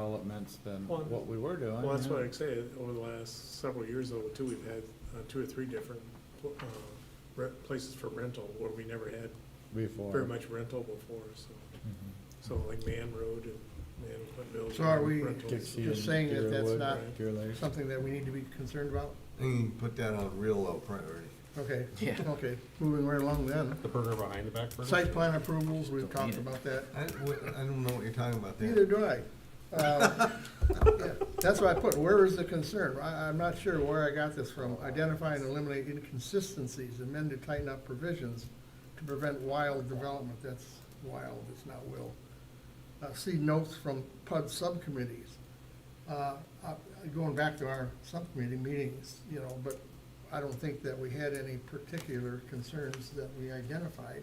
developments than Well, what we were doing. Well, that's yeah. what I say, over the last several years though, too, we've had uh, two or three different pl- uh, re- places for rental where we never had Before. very much rental before, so, Mhm. so like Man Road and Man Quinville. Mm-hmm. So are we- rentals. Dixie Just and saying that that's Deerwood, not Deer Lake. Something that we need to be concerned about? You can put that on real low priority. Okay. Yeah. Okay, moving right along then. The burger behind the back burger? Site plan approvals, we've talked Don't need it. about that. I, wh- I don't know what you're talking about Neither there. do I. Uh, yeah, That's what I put, where is the concern? I, I'm not sure where I got this from. Identify and eliminate inconsistencies, amend to tighten up provisions to prevent wild development. That's wild, it's not will. Uh, See notes from PUD subcommittees. Uh, uh, Going back to our subcommittee meetings, you know, but I don't think that we had any particular concerns that we identified,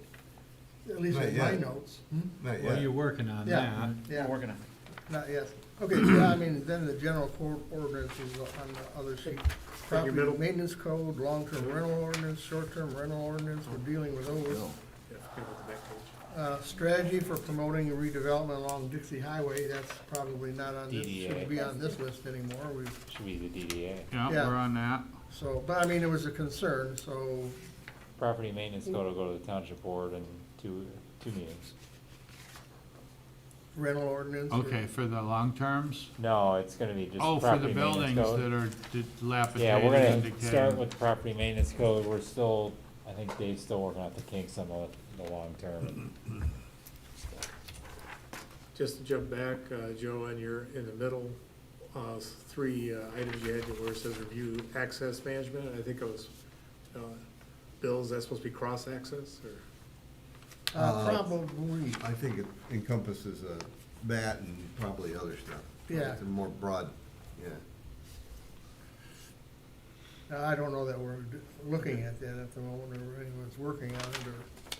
at least Not in my yet. notes. Hmm? Not Well, yet. you're working on Yeah, that. yeah. We're working on it. Not yet. Okay, yeah, I mean, then the general code ordinance is on the other sheet. Property middle. maintenance code, long-term rental ordinance, short-term rental ordinance, we're dealing with those. Bill. Yeah, I forget what the next page. Uh, strategy for promoting redevelopment along Dixie Highway, that's probably not on this, DDA. shouldn't be on this list anymore, we, Should be the DDA. Yeah, Yeah. we're on that. so, but I mean, it was a concern, so, Property maintenance code will go to the township board in two, two meetings. rental ordinance. or- Okay, for the long terms? No, it's gonna be just Oh, for property the maintenance buildings that code. are Yeah, dilapidated we're and gonna start decaying. with the property maintenance code, we're still, I think Dave's still working out the kinks on the, the long term. Just to jump back, uh, Joe, on your, in the middle, uh, s- three uh, items you had where it says review access management, I think it was, uh, Bill's, that's supposed to be cross-access, or? Uh, probably, I think it encompasses uh, that and probably other stuff. Yeah. It's a more broad, yeah. Now, I don't know that we're d- looking at that at the moment, or anyone's working on it, or.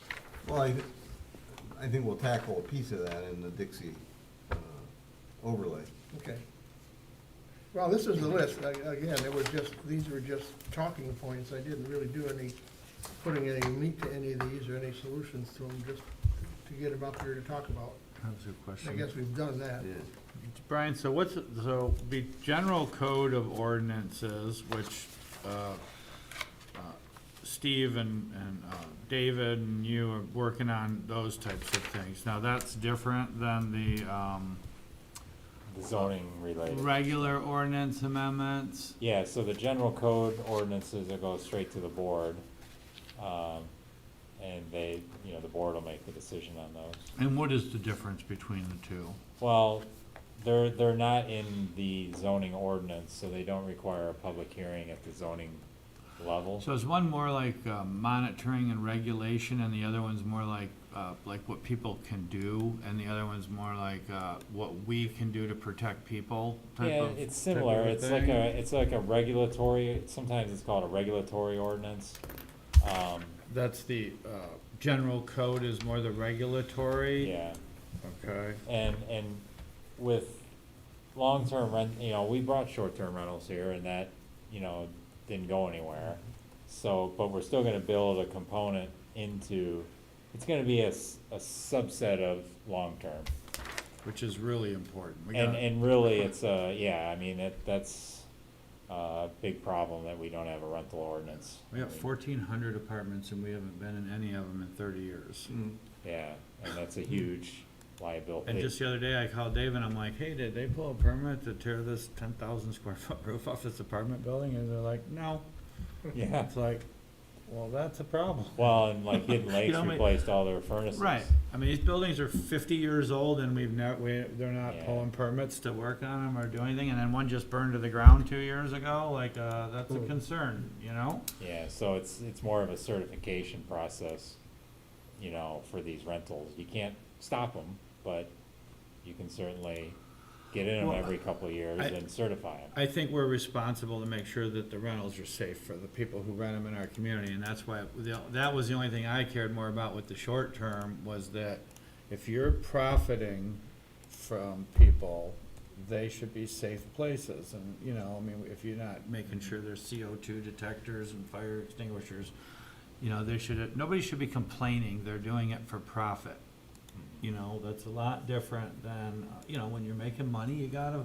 Well, I, I think we'll tackle a piece of that in the Dixie uh, overlay. Okay. Well, this is the list. I- Again, it was just, these were just talking points. I didn't really do any, putting any meat to any of these or any solutions to them, just to get them up here to talk about. That was a I question. guess we've done that. Brian, so what's, so the general code of ordinances, which uh, uh, Steve and, and uh, David and you are working on those types of things. Now, that's different than the um, The zoning related. regular ordinance amendments. Yeah, so the general code ordinances will go straight to the board. Um, and they, you know, the board will make the decision on those. And what is the difference between the two? Well, they're, they're not in the zoning ordinance, so they don't require a public hearing at the zoning level. So is one more like uh, monitoring and regulation, and the other one's more like, uh, like what people can do, and the other one's more like uh, what we can do to protect people type Yeah, of? it's similar, of it's like thing? a, it's like a regulatory, sometimes it's called a regulatory ordinance. Um, That's the uh, general code is more the regulatory? yeah, Okay. and, and with long-term rent, you know, we brought short-term rentals here and that, you know, didn't go anywhere. So, but we're still gonna build a component into, it's gonna be a, s- a subset of long-term. Which is really important. We And, got- and really, it's a, yeah, I mean, that, that's uh, a big problem that we don't have a rental ordinance. We got I mean, fourteen hundred apartments, and we haven't been in any of them in thirty years. Yeah, and that's a huge liability. And just the other day, I called Dave and I'm like, hey, did they pull a permit to tear this ten thousand square foot roof off this apartment building? And they're like, no. Yeah, It's like, well, that's a problem. well, and like Hidden You Lakes know, I mean- replaced all their furnaces. Right, I mean, these buildings are fifty years old and we've not, we, they're not Yeah. pulling permits to work on them or do anything, and then one just burned to the ground two years ago, like, uh, that's a concern, you know? Yeah, so it's, it's more of a certification process, you know, for these rentals. You can't stop them, but you can certainly get in them Well, every couple of years I- and certify them. I think we're responsible to make sure that the rentals are safe for the people who rent them in our community, and that's why, the- that was the only thing I cared more about with the short term, was that if you're profiting from people, they should be safe places, and, you know, I mean, if you're not making sure there's CO2 detectors and fire extinguishers, you know, they should, nobody should be complaining, they're doing it for profit. you know, that's a lot different than, uh, you know, when you're making money, you gotta